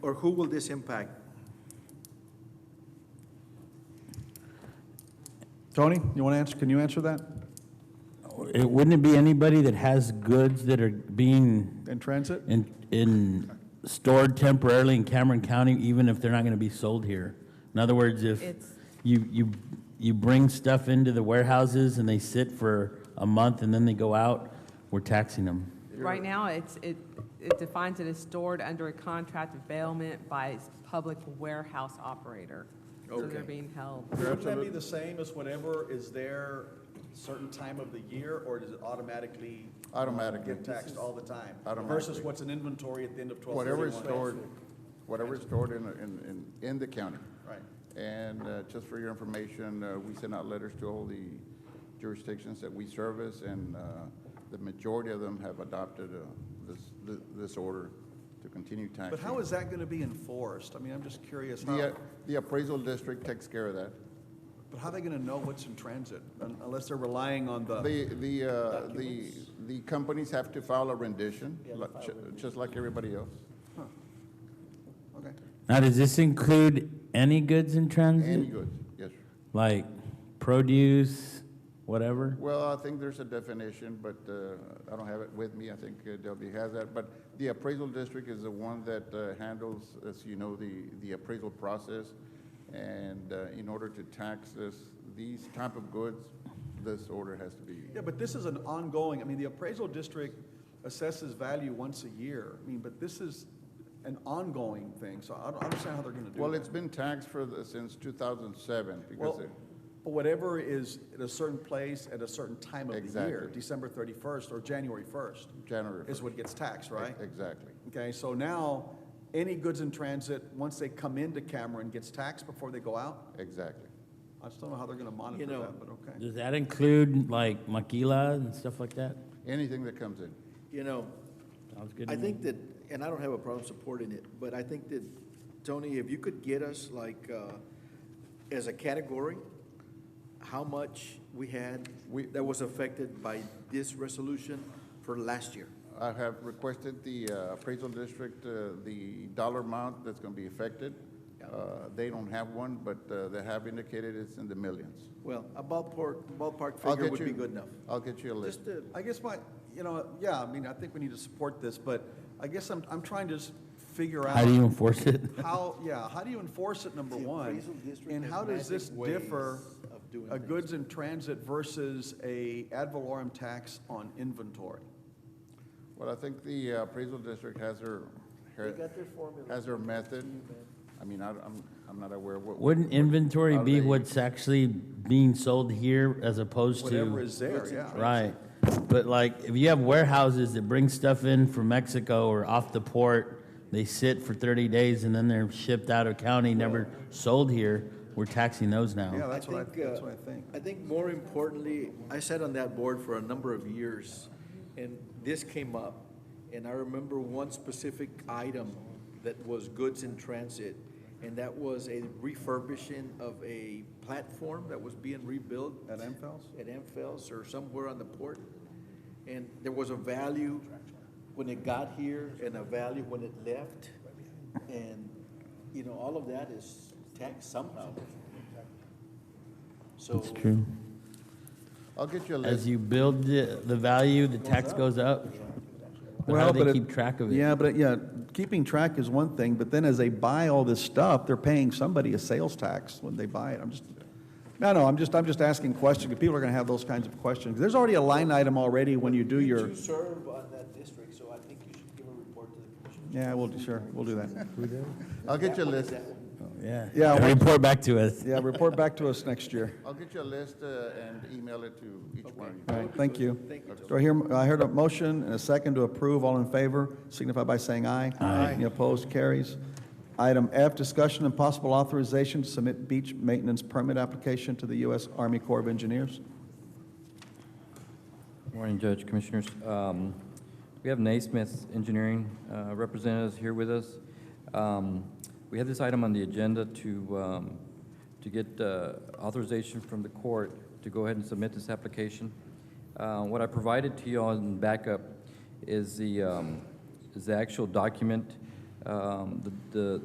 Or who will this impact? Tony, you want to answer, can you answer that It Wouldn't it be anybody that has goods that are being in transit? in, in, stored temporarily in Cameron County, even if they're not gonna be sold here? In other words, if It's- you, you, you bring stuff into the warehouses and they sit for a month and then they go out, we're taxing them. Right now, it's, it, it defines it as stored under a contract of bailment by its public warehouse operator. So they're Okay. being held. Wouldn't that be the same as whatever is there certain time of the year, or does it automatically? Automatically. Get taxed all the time? Versus Automatically. what's in inventory at the end of twelve thirty-one? Whatever is stored, whatever is stored in, in, in, in the county. Right. And uh, just for your information, uh, we send out letters to all the jurisdictions that we service, and uh, the majority of them have adopted uh, this, thi- this order to continue taxing. But how is that gonna be enforced? I mean, I'm just curious, The, how, uh, the appraisal district takes care of that. but how are they gonna know what's in transit, un- unless they're relying on the, The, the, uh, the, the companies have to file a rendition, like- ju- just like everybody else. okay. Now, does this include any goods in Any transit? goods, yes. sir. Like produce, whatever? Well, I think there's a definition, but uh, I don't have it with me. I think uh, Delby has that. But the appraisal district is the one that uh, handles, as you know, the, the appraisal process. And uh, in order to tax this, these type of goods, this order has to be. Yeah, but this is an ongoing, I mean, the appraisal district assesses value once a year. I mean, but this is an ongoing thing, so I don't understand how they're gonna do that. Well, it's been taxed for, the- since 2007 because Well, it- but whatever is at a certain place at a certain time of the year, Exactly. December 31st or January 1st, January is 1st. what gets taxed, right? Exactly. Okay, so now, any goods in transit, once they come into Cameron, gets taxed before they go out? Exactly. I just don't know how they're gonna monitor know- that, but okay. Does that include like maquila and stuff like that? Anything that comes in. You know, Sounds good to I me. think that, and I don't have a problem supporting it, but I think that, Tony, if you could get us like, uh, as a category, how much we had We- that was affected by this resolution for last year. I have requested the uh, appraisal district, uh, the dollar amount that's going to be affected. Uh, They don't have one, but uh, they have indicated it's in the millions. Well, a ballpark, ballpark I'll figure get would be you- good enough. I'll get you a Just list. to, I guess my, you know, yeah, I mean, I think we need to support this, but I guess I'm, I'm trying to just figure out. How do you enforce it? How, yeah, how do you enforce it, number The one? appraisal district And has how does this magic ways differ, of doing a things. goods in transit versus a ad valorem tax on inventory? Well, I think the uh, appraisal district has their, her- has their method. I mean, I- I'm, I'm not aware what. Wouldn't inventory how be they- what's actually being sold here as opposed to? Whatever is there, yeah. Right, but like, if you have warehouses that bring stuff in from Mexico or off the port, they sit for thirty days and then they're shipped out of county, never sold here, we're taxing those Yeah, now. that's what I, think, that's uh, what I think. I think more importantly, I sat on that board for a number of years, and this came up. And I remember one specific item that was goods in transit, and that was a refurbishing of a platform that was being rebuilt. At Amphels? At Amphels or somewhere on the port. And there was a value when it got here and a value when it left. And, you know, all of that is taxed somehow. So, It's true. I'll get you a As list. you build the, the value, the tax goes up. But how Well, do but they it- keep track of it? Yeah, but, it- yeah, keeping track is one thing, but then as they buy all this stuff, they're paying somebody a sales tax when they buy it. I'm just, no, no, I'm just, I'm just asking questions, because people are gonna have those kinds of questions. There's already a line item already when you do you your, two serve on that district, so I think you should give a report to the commission. yeah, we'll, do- sure, we'll do that. I'll get you That a one is list. that one. Yeah. Yeah, well- Report back to us. Yeah, report back to us next year. I'll get you a list uh, and email it to each one of you. All right, thank you. Thank you, Do I hear, I heard a motion and a second to approve, all in favor, signify by saying aye. Aye. Any opposed, carries. Item F, discussion and possible authorization to submit beach maintenance permit application to the U.S. Army Corps of Engineers. Morning, Judge, Commissioners. Um, We have Naismith Engineering uh, representatives here with us. Um, We have this item on the agenda to, um, to get uh, authorization from the court to go ahead and submit this application. Uh, What I provided to you all in backup is the, um, is the actual document Um, the- The